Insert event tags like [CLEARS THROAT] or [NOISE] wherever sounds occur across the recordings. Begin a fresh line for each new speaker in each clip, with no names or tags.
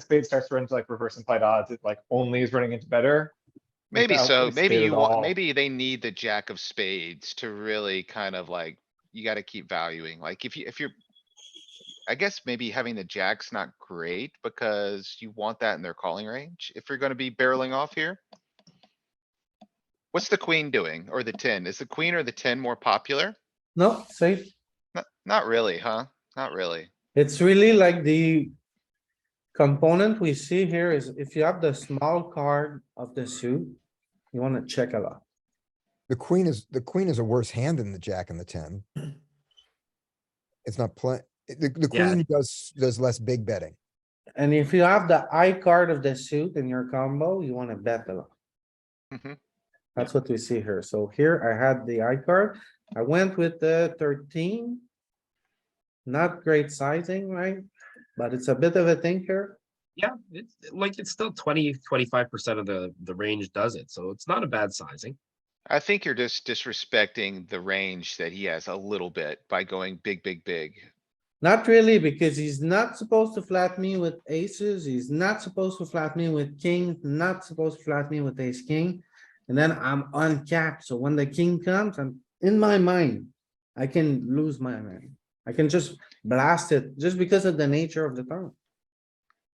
spade starts to run into like reverse implied odds, it like only is running into better. like,
Maybe
I don't
so,
think
maybe
spade
you
at all.
want, maybe they need the jack of spades to really kind of like, you gotta keep valuing, like if you, if you're. I guess maybe having the jack's not great because you want that in their calling range, if you're gonna be barreling off here. What's the queen doing, or the ten? Is the queen or the ten more popular?
No, safe.
Not, not really, huh? Not really.
It's really like the component we see here is if you have the small card of the suit, you wanna check a lot.
The queen is, the queen is a worse hand than the jack and the ten. It's not play, the, the
Yeah.
queen does, does less big betting.
And if you have the I card of the suit in your combo, you wanna bet a lot.
Mhm.
That's what we see here. So here I had the I card. I went with the thirteen. Not great sizing, right? But it's a bit of a thing here.
Yeah, it's like it's still 20, 25 percent of the, the range does it, so it's not a bad sizing.
I think you're just disrespecting the range that he has a little bit by going big, big, big.
Not really, because he's not supposed to flat me with aces. He's not supposed to flat me with king, not supposed to flat me with ace king. And then I'm uncapped. So when the king comes, I'm in my mind. I can lose my mind. I can just blast it just because of the nature of the turn.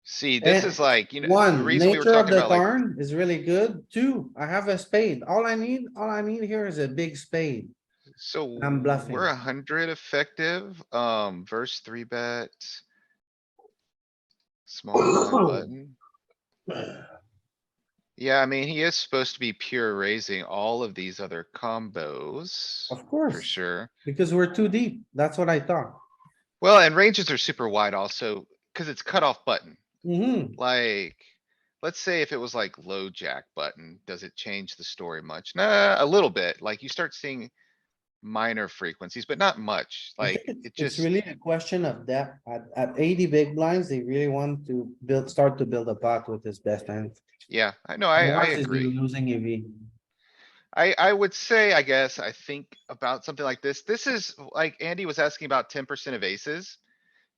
See, this
Eh,
is like, you know, the
One,
reason we were
nature of
talking
the
about like
turn is really good. Two, I have a spade. All I need, all I need here is a big spade.
So
I'm bluffing.
we're a hundred effective, um, verse three bet. Small
[CLEARS THROAT]
blind button. Yeah, I mean, he is supposed to be pure raising all of these other combos
Of
for
course,
sure.
because we're too deep. That's what I thought.
Well, and ranges are super wide also, cuz it's cutoff button,
Mhm.
like. Let's say if it was like low jack button, does it change the story much? Nah, a little bit, like you start seeing minor frequencies, but not much,
I
like
think
it
It's
just.
really a question of depth. At, at eighty big blinds, they really want to build, start to build a pot with his best hand.
Yeah, I know, I, I
Otherwise, he's
agree.
Losing E EV.
I, I would say, I guess, I think about something like this. This is like Andy was asking about ten percent of aces.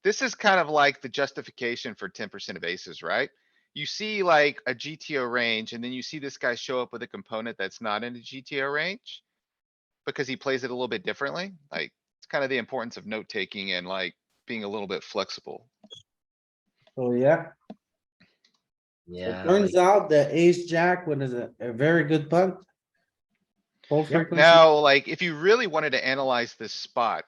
This is kind of like the justification for ten percent of aces, right? You see like a GTO range and then you see this guy show up with a component that's not in a GTO range. Because he plays it a little bit differently, like it's kind of the importance of note taking and like being a little bit flexible.
So yeah, it
Yeah.
turns out the ace jack, what is it? A very good punt. Full frequency.
Now, like, if you really wanted to analyze this spot.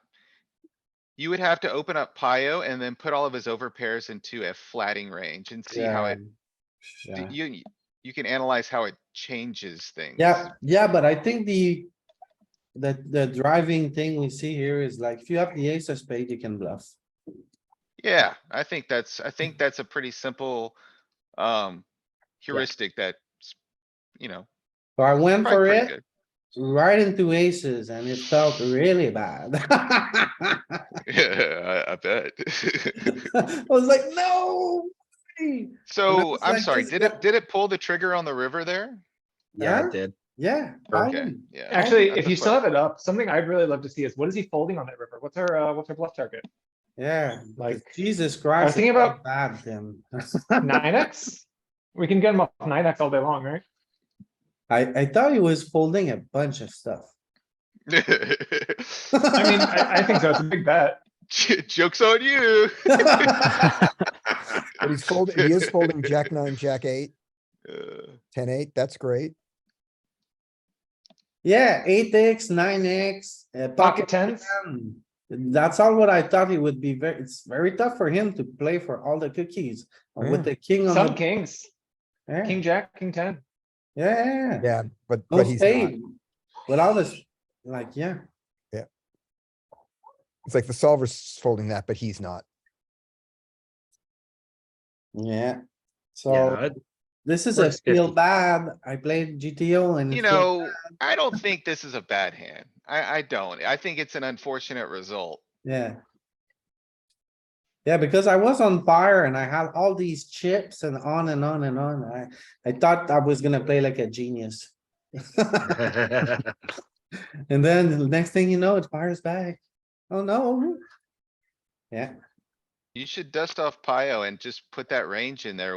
You would have to open up Pio and then put all of his over pairs into a flatting range and see how it,
Yeah.
d- you, you can analyze how it changes things.
Yeah, yeah, but I think the, the, the driving thing we see here is like, if you have the ace of spade, you can bluff.
Yeah, I think that's, I
Mm-hmm.
think that's a pretty simple, um, heuristic that, you know.
So I went
probably
for
pretty
it, right into aces, and it felt really bad. [LAUGHS] I
good. [LAUGHS] Yeah, I, I bet. [LAUGHS]
[LAUGHS] was like, no. way."
So,
was
I'm
like,
sorry,
this
did
guy-
it, did it pull the trigger on the river there?
Yeah,
Huh?
it did.
Yeah.
Okay,
fine.
yeah.
Actually,
that's
if
a
you
fun-
still have it up, something I'd really love to see is what is he folding on that river? What's our, uh, what's our bluff target?
Yeah, like
Like-
Jesus Christ. it
thinking
felt
about-
Bad then.
Nine X? We can get him off nine X all day long, right?
I, I thought he was folding a bunch of stuff.
[LAUGHS]
I mean, I, I think so. It's a big bet.
J- Joke's on you.
But
[LAUGHS]
he's folding, he is folding jack nine, jack eight,
Uh,
ten eight. That's great.
[LAUGHS] Yeah, eight X, nine X, uh,
Pocket
pocket
tens?
Um, That's all what I thought it would be very, it's very tough for him to play for all the cookies and with the king on
Some
the.
kings,
Yeah,
king jack, king ten.
Yeah, yeah,
Yeah, but,
no
but he's not.
spade. With all this, like, yeah,
It's like the solver's folding that, but he's not.
yeah.
Yeah,
So
it-
this is a
Works
feel
50.
bad. I played GTO and.
You
it feels-
know, I don't think this is a bad hand. I, I don't. I think it's an unfortunate result.
Yeah. Yeah, because I was on fire and I had all these chips and on and on and on. I, I thought I was gonna play like a genius. [LAUGHS]
[LAUGHS]
And then the next thing you know, it fires back. Oh no. Yeah.
You should dust off Pio and just put that range in there